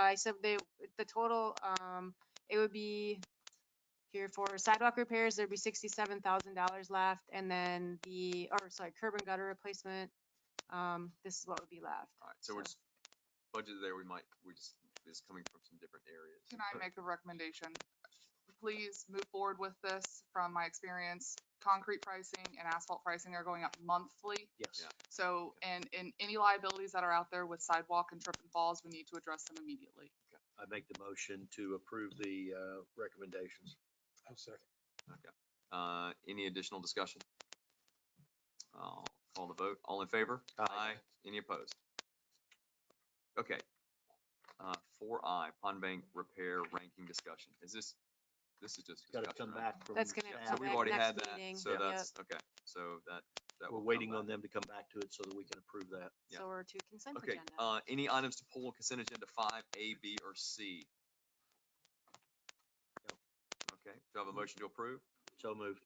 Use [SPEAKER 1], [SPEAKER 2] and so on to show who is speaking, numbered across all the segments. [SPEAKER 1] I said they, the total, um, it would be here for sidewalk repairs, there'd be sixty-seven thousand dollars left, and then the, or sorry, curb and gutter replacement, um, this is what would be left.
[SPEAKER 2] Alright, so we're
[SPEAKER 1] So-
[SPEAKER 2] just, budget there, we might, we just, is coming from some different areas.
[SPEAKER 3] Can I
[SPEAKER 2] but-
[SPEAKER 3] make a recommendation? Please move forward with this. From my experience, concrete pricing and asphalt pricing are going up monthly.
[SPEAKER 4] Yes.
[SPEAKER 3] So, and, and any liabilities that are out there with sidewalk and trip and falls, we need to address them immediately.
[SPEAKER 4] I make the motion to approve the uh, recommendations.
[SPEAKER 5] I'll second.
[SPEAKER 2] Okay. Uh, any additional discussion? I'll call the vote. All in favor?
[SPEAKER 4] Aye.
[SPEAKER 2] Any opposed? Okay. Uh, four I, pond bank repair ranking discussion. Is this, this is just
[SPEAKER 4] Got to
[SPEAKER 2] discussion,
[SPEAKER 4] come
[SPEAKER 2] right?
[SPEAKER 4] back from.
[SPEAKER 1] That's gonna
[SPEAKER 4] staff.
[SPEAKER 2] So
[SPEAKER 1] come
[SPEAKER 2] we've
[SPEAKER 1] back
[SPEAKER 2] already
[SPEAKER 1] next
[SPEAKER 2] had that,
[SPEAKER 1] meeting.
[SPEAKER 2] so
[SPEAKER 1] Yep.
[SPEAKER 2] that's, okay, so that, that. will
[SPEAKER 4] We're
[SPEAKER 2] come
[SPEAKER 4] waiting
[SPEAKER 2] back.
[SPEAKER 4] on them to come back to it so that we can approve that.
[SPEAKER 2] Yeah.
[SPEAKER 1] So we're to consent
[SPEAKER 2] Okay,
[SPEAKER 1] agenda.
[SPEAKER 2] uh, any items to pull on consent agenda five, A, B, or C?
[SPEAKER 4] No.
[SPEAKER 2] Okay, do I have a motion to approve?
[SPEAKER 4] So moved.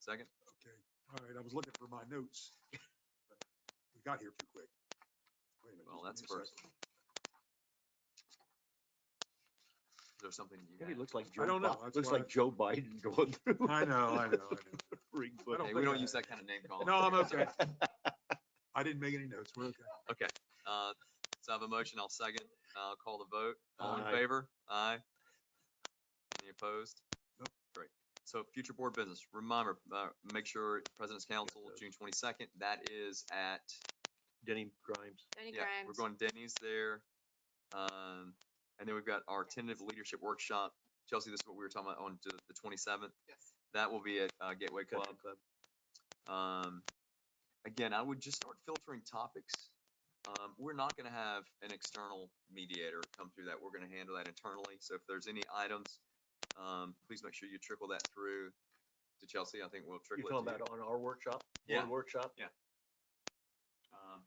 [SPEAKER 2] Second?
[SPEAKER 5] Okay, all right, I was looking for my notes. but We got here too quick. Wait a minute,
[SPEAKER 2] Well,
[SPEAKER 5] just
[SPEAKER 2] that's
[SPEAKER 5] give me a
[SPEAKER 2] first.
[SPEAKER 5] second.
[SPEAKER 2] Is there something you
[SPEAKER 4] Maybe
[SPEAKER 2] had?
[SPEAKER 4] it looks like.
[SPEAKER 5] I
[SPEAKER 4] Joe
[SPEAKER 5] don't know,
[SPEAKER 4] Bi-
[SPEAKER 5] that's
[SPEAKER 4] Looks
[SPEAKER 5] why-
[SPEAKER 4] like Joe Biden going through.
[SPEAKER 5] I know, I know, I know.
[SPEAKER 4] Ring
[SPEAKER 5] I don't
[SPEAKER 2] Hey, we
[SPEAKER 4] book.
[SPEAKER 5] think
[SPEAKER 2] don't
[SPEAKER 5] I-
[SPEAKER 2] use that kind of name calling.
[SPEAKER 5] No, I'm okay. I didn't make any notes, we're okay.
[SPEAKER 2] Uh, so I have a motion, I'll second, I'll call the vote. All in
[SPEAKER 4] Aye.
[SPEAKER 2] favor? Aye. Any opposed?
[SPEAKER 5] Nope.
[SPEAKER 2] Great. So future board business, reminder, uh, make sure President's Council,
[SPEAKER 4] those.
[SPEAKER 2] June twenty-second, that is at,
[SPEAKER 4] Denny Grimes.
[SPEAKER 1] Any
[SPEAKER 2] yeah, we're
[SPEAKER 1] Grimes?
[SPEAKER 2] going Denny's there. Um, and then we've got our tentative leadership workshop. Chelsea, this is what we were talking about on the twenty-seventh.
[SPEAKER 3] Yes.
[SPEAKER 2] That will be at, uh, Gateway Club.
[SPEAKER 4] Country Club.
[SPEAKER 2] Um, again, I would just start filtering topics. Um, we're not gonna have an external mediator come through that. We're gonna handle that internally. So if there's any items, um, please make sure you trickle that through to Chelsea. I think we'll
[SPEAKER 4] You're
[SPEAKER 2] trickle it to
[SPEAKER 4] talking
[SPEAKER 2] you.
[SPEAKER 4] about on our workshop?
[SPEAKER 2] Yeah.
[SPEAKER 4] Board Workshop?
[SPEAKER 2] Um,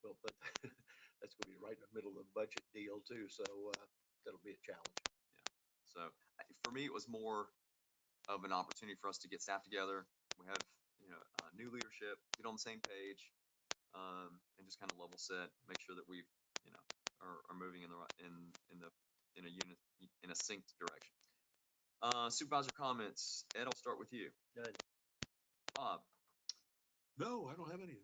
[SPEAKER 4] Well, but that's going to be right in the middle of the budget deal too, so uh, that'll be a challenge.
[SPEAKER 2] So I- for me, it was more of an opportunity for us to get staff together. We have, you know, uh, new leadership, get on the same page, um, and just kind of level set, make sure that we've, you know, are, are moving in the right, in, in the, in a unit, in a synced direction. Uh, supervisor comments. Ed, I'll start with you.
[SPEAKER 4] None.
[SPEAKER 2] Bob,
[SPEAKER 5] No, I don't have anything.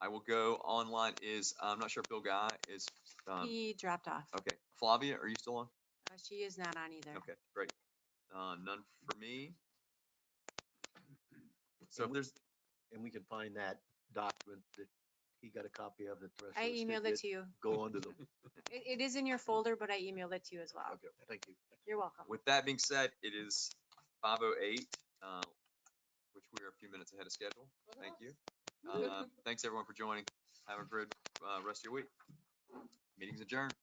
[SPEAKER 2] I will go online is, I'm not sure if Bill Guy is, um,
[SPEAKER 1] He dropped off.
[SPEAKER 2] okay. Flavia, are you still on?
[SPEAKER 1] Uh, She is not on either.
[SPEAKER 2] Okay, great. Uh, none for me. So if there's,
[SPEAKER 4] And we can find that document that he got a copy of that. the rest of
[SPEAKER 1] I
[SPEAKER 4] us didn't
[SPEAKER 1] emailed
[SPEAKER 4] get.
[SPEAKER 1] it to you.
[SPEAKER 4] Go on to the,
[SPEAKER 1] It, it is in your folder, but I emailed it to you as well.
[SPEAKER 4] okay, thank you.
[SPEAKER 1] You're welcome.
[SPEAKER 2] With that being said, it is five oh eight, uh, which we are a few minutes ahead of schedule. Thank you. Uh, thanks everyone for joining. Have a good, uh, rest of your week. Meeting's adjourned.